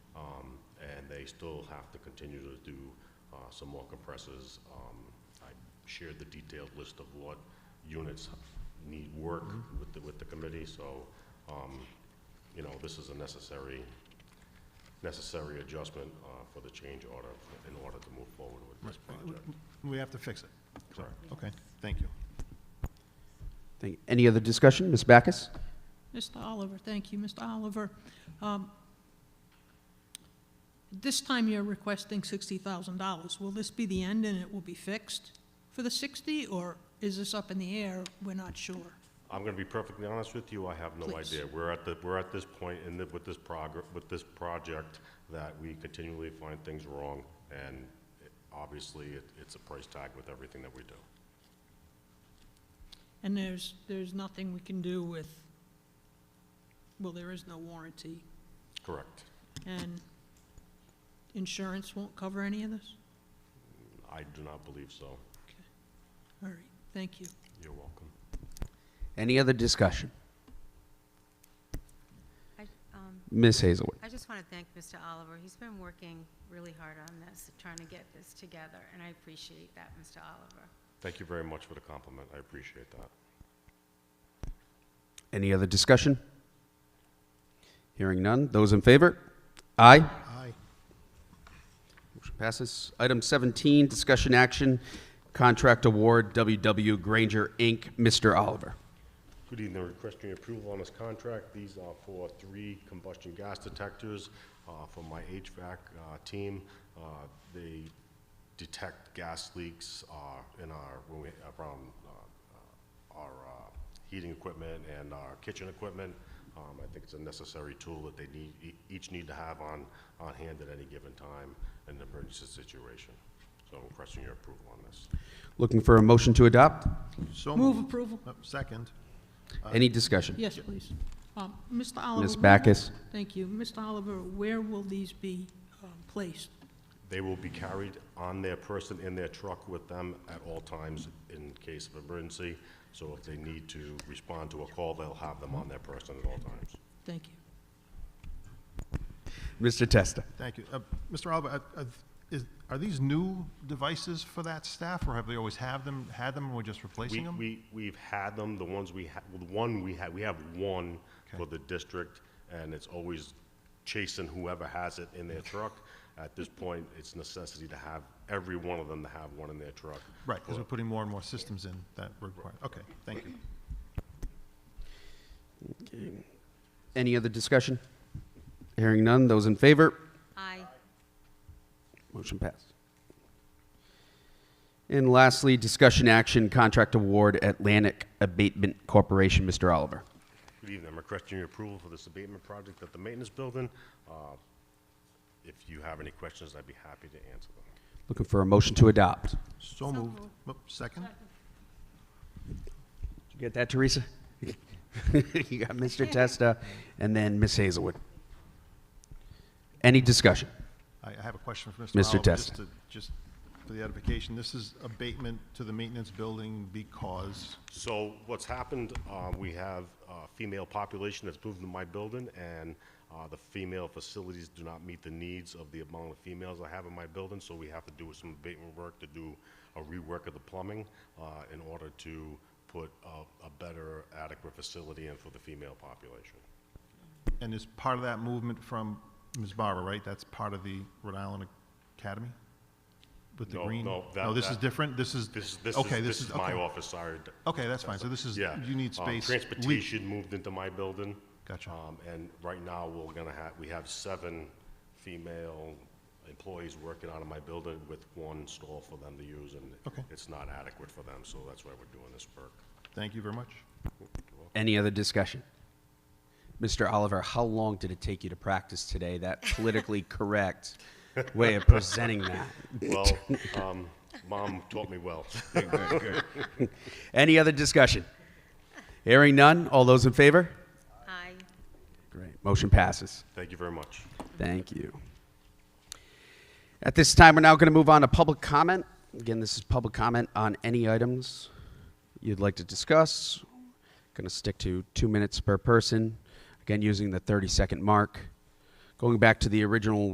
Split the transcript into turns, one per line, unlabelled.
Um, they still have to continue to do uh, some more compressors. Um, I shared the detailed list of what units need work with the, with the committee, so, um, you know, this is a necessary, necessary adjustment uh, for the change order in order to move forward with this project.
We have to fix it.
Sorry.
Okay, thank you.
Thank you. Any other discussion? Ms. Backus?
Mr. Oliver, thank you, Mr. Oliver. um, This time you're requesting $60,000. Will this be the end and it will be fixed for the 60, or is this up in the air? We're not sure.
I'm gonna be perfectly honest with you, I have no
Please.
idea. We're at the, we're at this point in the, with this progr, with this project, that we continually find things wrong, and it- obviously, it, it's a price tag with everything that we do.
And there's, there's nothing we can do with, well, there is no warranty,
Correct.
and insurance won't cover any of this?
I do not believe so.
All right, thank you.
You're welcome.
Any other discussion?
I, um,
Ms. Hazelwood?
I just want to thank Mr. Oliver. He's been working really hard on this, trying to get this together, and I appreciate that, Mr. Oliver.
Thank you very much for the compliment, I appreciate that.
Any other discussion? Hearing none. Those in favor? Aye.
Aye.
Motion passes. Item 17, discussion action, contract award, WW Granger, Inc., Mr. Oliver.
Good evening, requesting your approval on this contract. These are for three combustion gas detectors uh, for my HVAC uh, team. Uh, They detect gas leaks uh, in our, when we, around uh, our uh, heating equipment and our kitchen equipment. Um, I think it's a necessary tool that they need, e- each need to have on, on hand at any given time in an emergency situation. So I'm requesting your approval on this.
Looking for a motion to adopt?
So
Move
moved.
approval.
Uh, Second.
Any discussion?
Yes, please. Um, Mr. Oliver.
Ms. Backus?
Thank you. Mr. Oliver, where will these be um, placed?
They will be carried on their person in their truck with them at all times in case of emergency. So if they need to respond to a call, they'll have them on their person at all times.
Thank you.
Mr. Testa?
Thank you. Uh, Mr. Oliver, uh, uh, is- are these new devices for that staff, or have they always have them, had them, and we're just
We,
replacing them?
we, we've had them, the ones we have, the one we had, we have one for the district, and it's always chasing whoever has it in their truck. At this point, it's necessity to have every one of them to have one in their truck.
Right, because we're putting more and more systems in that require, okay, thank you.
Any other discussion? Hearing none. Those in favor?
I,
Motion passed. And lastly, discussion action, contract award, Atlantic Abatement Corporation, Mr. Oliver.
Good evening. I'm requesting your approval for this abatement project at the maintenance building. Uh, If you have any questions, I'd be happy to answer them.
Looking for a motion to adopt.
So moved. Mo- Second?
Did you get that, Teresa? You got Mr. Testa and then Ms. Hazelwood. Any discussion?
I I have a question for Mr.
Mr.
Oliver.
Testa.
just to- Just for the edification, this is abatement to the maintenance building because,
So what's happened, uh, we have a female population that's moved to my building, and uh, the female facilities do not meet the needs of the amount of females I have in my building, so we have to do some abatement work to do a rework of the plumbing uh, in order to put a a better adequate facility in for the female population.
and is part of that movement from Ms. Barber, right? That's part of the Rhode Island Academy? With the
No,
green?
no, that-
this
that-
is different? This is?
This is, this
okay,
is, this is my
okay.
office, sorry.
Okay, that's fine. So this is,
Yeah.
you need
Um,
space. We-
Transportation moved into my building.
Gotcha.
Um, and right now, we're gonna have, we have seven female employees working out of my building with one stall for them to use, and
Okay.
it's not adequate for them, so that's why we're doing this work.
Thank you very much.
Any other discussion? Mr. Oliver, how long did it take you to practice today that politically correct way of presenting that?
Well, um, mom taught me well.
Any other discussion? Hearing none. All those in favor?
I,
Great. Motion passes.
Thank you very much.
Thank you. At this time, we're now going to move on to public comment. Again, this is public comment on any items you'd like to discuss. Going to stick to two minutes per person. Again, using the 30 second mark. Going back to the original